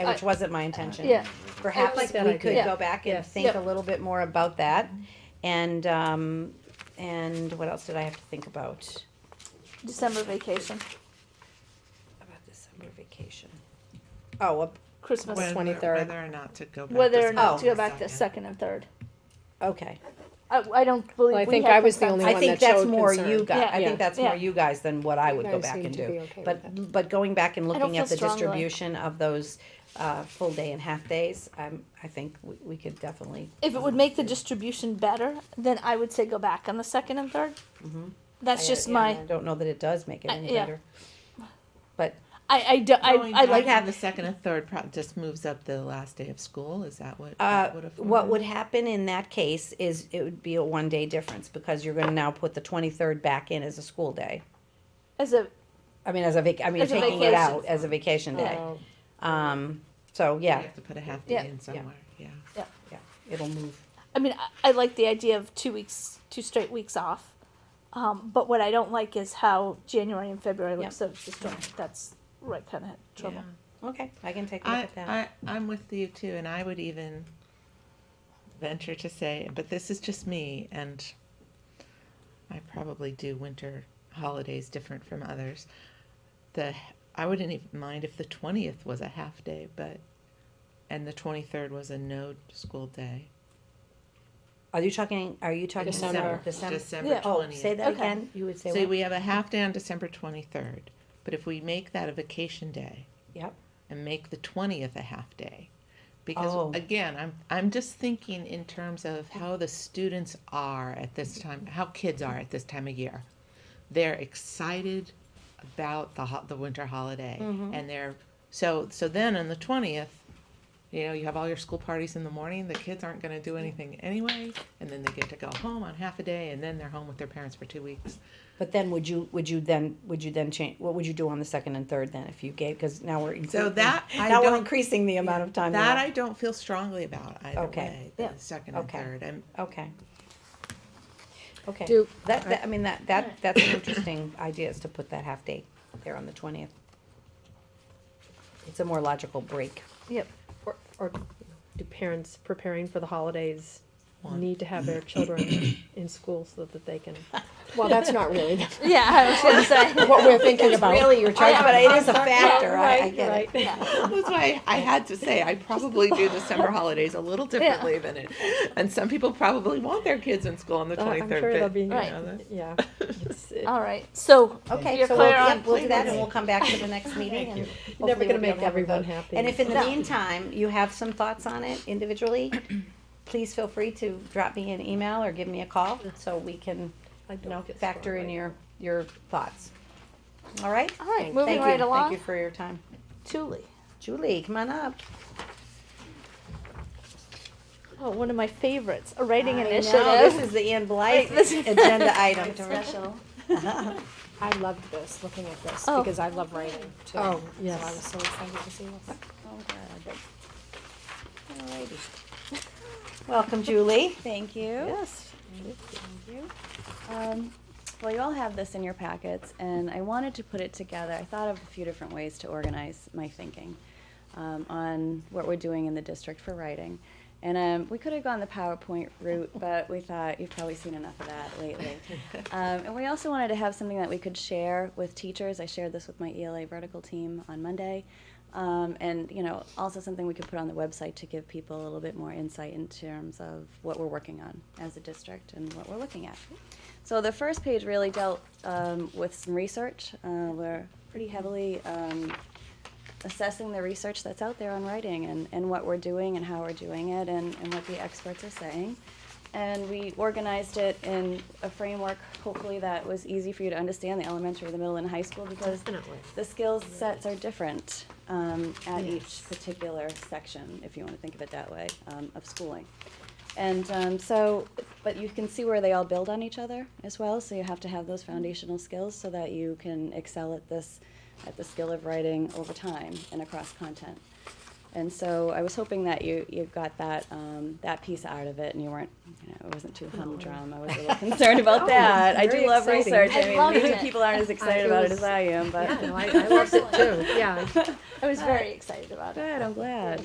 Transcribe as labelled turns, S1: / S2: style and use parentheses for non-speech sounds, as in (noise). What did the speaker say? S1: which wasn't my intention.
S2: Yeah,
S1: Perhaps
S3: that
S1: we
S3: idea.
S1: could
S2: Yeah.
S1: go back and
S3: Yes.
S1: think a
S2: Yep.
S1: little bit more about that. And, um, and what else did I have to think about?
S2: December vacation,
S1: About the summer vacation. Oh, ab-
S2: Christmas,
S4: Whether-
S3: 23rd.
S4: Whether or not to go back.
S2: whether or
S4: to
S2: not
S1: Oh.
S2: to go back the
S4: second.
S2: second and third.
S1: okay.
S2: I, I don't believe.
S3: Well, I
S2: we
S3: think
S2: had
S3: I was the
S2: consensus.
S3: only
S1: I
S3: one
S1: think
S3: that
S1: that's
S3: showed
S1: more
S3: concern.
S1: you guys, I
S3: Yeah.
S1: think that's more you guys than what I would
S3: You
S1: go
S3: guys
S1: back
S3: seem
S1: and
S3: to be
S1: do.
S3: okay with
S1: But, but going back and
S2: don't
S1: looking
S2: feel
S1: at the
S2: strongly.
S1: distribution of those, uh, full day and half days, um, I think we, we could definitely,
S2: If it would make the distribution better, then I would say go back on the second and 3rd That's
S1: I-
S2: just
S1: yeah,
S2: my.
S1: I don't know that it does make it
S2: I-
S1: any
S2: yeah.
S1: better. But
S2: I I do, I,
S4: Going
S2: I
S4: back
S2: like.
S4: on The second and third pro- just moves up the last day of school, is that what?
S1: Uh,
S4: that would've
S1: what
S4: worked?
S1: would happen in that case is it would be a one day difference because you're gonna now put the twenty-third back in as a school day.
S2: as a
S1: I mean, as a vac, I mean,
S2: As a
S1: taking it out
S2: vacation.
S1: as a vacation day.
S3: Oh,
S1: Um, so,
S4: You
S1: yeah,
S4: have to put a half
S2: Yeah.
S4: day in somewhere, yeah.
S1: yeah, it'll move.
S2: I mean I, I like the idea of two weeks, two straight weeks off. Um, but what I don't like is how January and February look
S1: Yeah.
S2: so disjointed. That's right kind of trouble.
S4: Yeah.
S1: Okay, I can take a look
S4: I,
S1: at that.
S4: I, I'm with you too, and I would even venture to say, but this is just me, and I probably do winter holidays different from others. The I wouldn't even mind if the twentieth was a half day, but and the twenty third was a no school day.
S1: Are you talking, are you talking?
S3: December.
S1: December?
S4: December
S1: Oh,
S4: twentieth.
S1: say that
S2: Okay.
S1: again, you would say
S4: So
S1: what?
S4: we have a half day on December twenty-third, but if we make that a vacation day.
S1: Yep.
S4: And make the twentieth a half day. Because
S1: Oh.
S4: again, I'm, I'm just thinking in terms of how the students are at this time, how kids are at this time of year. They're excited about the ho- the winter holiday
S1: Mm-hmm.
S4: and they're, so, so then on the twentieth, you know, you have all your school parties in the morning, the kids aren't gonna do anything anyway, and then they get to go home on half a day and then they're home with their parents for two weeks.
S1: But then would you, would you then, would you then change, what would you do on the second and third then if you gave, cause now we're. increasing-
S4: that I
S1: Now we're
S4: don't-
S1: increasing the amount of time.
S4: That
S1: allowed.
S4: I don't feel strongly about either
S1: Okay.
S4: way, the
S2: Yeah.
S4: second and
S1: Okay.
S4: third. I'm,
S1: Okay. Okay.
S3: Do-
S1: That, that, I mean, that, that, that's an interesting idea is to put that half day there on the twentieth. It's a more logical break.
S2: Yep.
S3: Or, or do parents preparing for the holidays
S4: Want.
S3: need to have their children in school so that they can? (laughs) Well, that's not really (laughs)
S2: (laughs) Yeah, I
S1: (laughs)
S2: was gonna say.
S3: (laughs) what we're thinking about. Oh,
S1: Really, you're
S2: charged,
S1: but it is a
S2: factor,
S1: factor, I,
S3: Right,
S1: get it.
S3: right.
S4: that's why I had to say I probably do December holidays a little differently than it. And some people probably want their kids in school on
S3: (laughs)
S4: the
S3: Uh,
S4: twenty
S3: I'm sure they'll
S4: third.
S3: be,
S4: you
S2: Right.
S4: know, the-
S3: yeah. (laughs) It's- it-
S2: All right. So
S1: Okay,
S2: You're
S1: so we'll,
S2: clear on-
S1: yeah, we'll do that and
S4: Please.
S1: we'll come back to the
S2: (laughs)
S1: next meeting and.
S3: You're
S1: hopefully
S3: never
S1: we'll
S3: gonna
S1: be able
S3: make
S1: to have a
S3: everyone
S1: vote.
S3: happy.
S1: And if in the
S2: No.
S1: meantime, you have some thoughts on it individually, (clears throat) please feel free to drop me an email or give me a call so we can
S3: I don't feel
S1: factor in
S3: strongly.
S1: your, your thoughts. All right?
S2: All right, moving
S1: Thank you.
S2: right along.
S1: Thank you for your time.
S2: Julie.
S1: Julie, come on up.
S2: Oh, one of my favorites, a writing
S1: I know,
S2: initiative.
S1: This is the Ann Blythe (laughs) agenda item.
S5: I loved this, looking at this,
S2: Oh.
S5: because I love writing too.
S3: Oh,
S5: So I
S3: yes.
S5: was
S3: (laughs)
S5: so excited to see this.
S1: Welcome, Julie.
S6: Thank you.
S3: Yes.
S6: Um, well, you all have this in your packets, and I wanted to put it together. I thought of a few different ways to organize my thinking um, on what we're doing in the district for writing. And um, we could have gone the PowerPoint route,
S5: (laughs)
S6: but we thought you've probably seen enough of that lately. Um, and we also wanted to have something that we could share with teachers. I shared this with my ELA vertical team on Monday. Um, and you know, also something we could put on the website to give people a little bit more insight in terms of what we're working on as a district and what we're looking at. So the first page really dealt um, with some research. Uh, we're pretty heavily um, assessing the research that's out there on writing and, and what we're doing and how we're doing it and, and what the experts are saying. And we organized it in a framework, hopefully, that was easy for you to understand the elementary, the middle, and high school because
S3: Definitely.
S6: the skill sets are different um, at each particular section, if you want to think of it that way, um, of schooling. And um, so, but you can see where they all build on each other as well. So you have to have those foundational skills so that you can excel at this, at the skill of writing over time and across content. And so I was hoping that you, you got that, um, that piece out of it and you weren't, you know, it wasn't too humdrum. I was a little (laughs) concerned about that. I do
S5: very
S6: love
S5: exciting.
S6: research.
S5: I
S6: I mean,
S2: loved
S6: maybe
S2: it.
S6: people aren't as excited
S5: it
S6: about it
S5: was-
S6: as I am, but
S5: I, I loved it too, yeah.
S2: I was very excited about it.
S6: good, I'm glad.